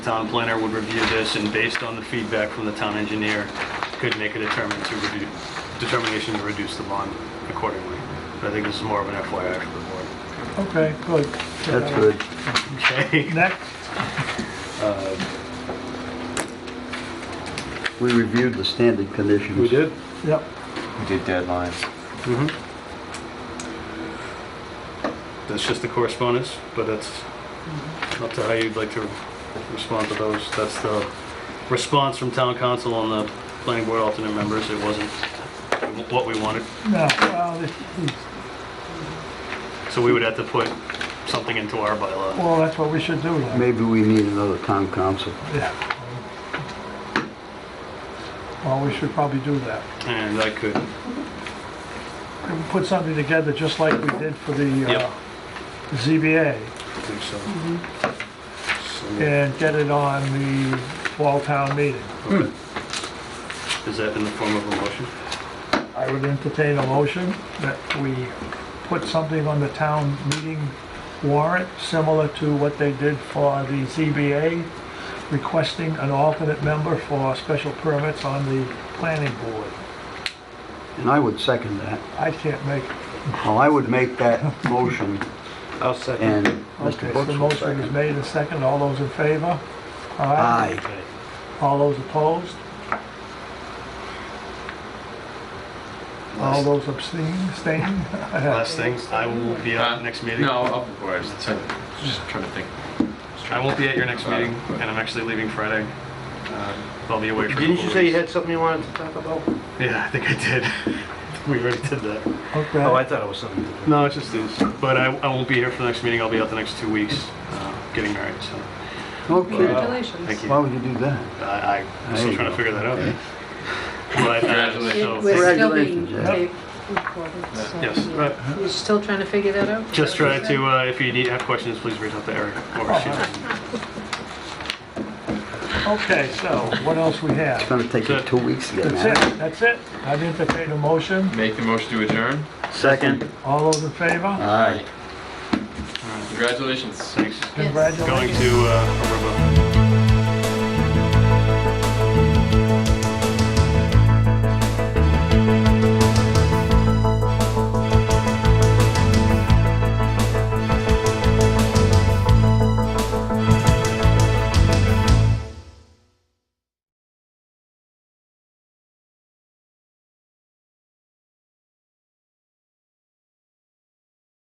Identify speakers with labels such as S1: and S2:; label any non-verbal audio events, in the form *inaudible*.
S1: Town planner would review this and based on the feedback from the town engineer, could make a determination to reduce, determination to reduce the bond accordingly. But I think this is more of an FYI for the board.
S2: Okay, good.
S3: That's good.
S1: *laughs* Okay.
S2: Next,
S3: We reviewed the standard conditions.
S1: We did?
S2: yep,
S4: We did deadlines.
S1: Mm-hmm. That's just the correspondence, but that's up to how you'd like to respond to those. That's the response from town council on the planning board alternate members. It wasn't what we wanted.
S2: no, well, this-
S1: So we would have to put something into our bylaw.
S2: well, that's what we should do then.
S3: Maybe we need another town council.
S2: Yeah. Well, we should probably do that.
S1: And I could,
S2: We can Put something together just like we did for the uh,
S1: Yep.
S2: ZBA
S1: I think so.
S5: Mm-hmm.
S1: So.
S2: and get it on the fall town meeting.
S1: okay. Is that in the form of a motion?
S2: I would entertain a motion that we put something on the town meeting warrant, similar to what they did for the ZBA, requesting an alternate member for special permits on the planning board.
S3: And I would second that.
S2: I can't make,
S3: Well, I would make that motion
S1: I'll second.
S3: and
S2: okay,
S3: Mr.
S2: so the
S3: Brooks will
S2: motion is
S3: second.
S2: made and second, all those in favor?
S3: Aye.
S1: Okay.
S2: All those opposed? All those abstain, abstain? *laughs*
S1: Last thing, I will be at next meeting.
S4: Uh, No, I'll- of course, it's, I'm just trying to think.
S1: I won't be at your next meeting, and I'm actually leaving Friday. Uh, I'll be away for a
S5: Didn't
S1: couple
S5: you say you
S1: weeks.
S5: had something you wanted to talk about?
S1: Yeah, I think I did. *laughs* We already did that.
S2: Okay.
S5: Oh, I thought it was something.
S1: No, it's just these. But I, I won't be here for the next meeting, I'll be out the next two weeks, uh, getting married, so,
S3: Okay.
S1: thank
S6: Congratulations.
S1: you.
S3: Why would you do that?
S1: I, I'm still trying to figure that out. But, uh,
S6: It
S1: so,
S6: was still being
S3: Congratulations, yeah.
S6: taped, recorded, so,
S1: yes,
S6: yeah.
S1: but
S6: You're still trying to figure that out?
S1: just try to, uh, if you need, have questions, please reach out to Eric or Shannon.
S2: Okay, so what else we have?
S3: It's gonna take you two weeks to get
S2: That's
S3: married.
S2: it, that's it. I entertain a motion.
S4: Make the motion to adjourn?
S3: Second.
S2: All those in favor?
S3: Aye.
S4: Congratulations.
S1: Thanks.
S6: Yes.
S2: Congratulations.
S1: Going to, uh, Aruba.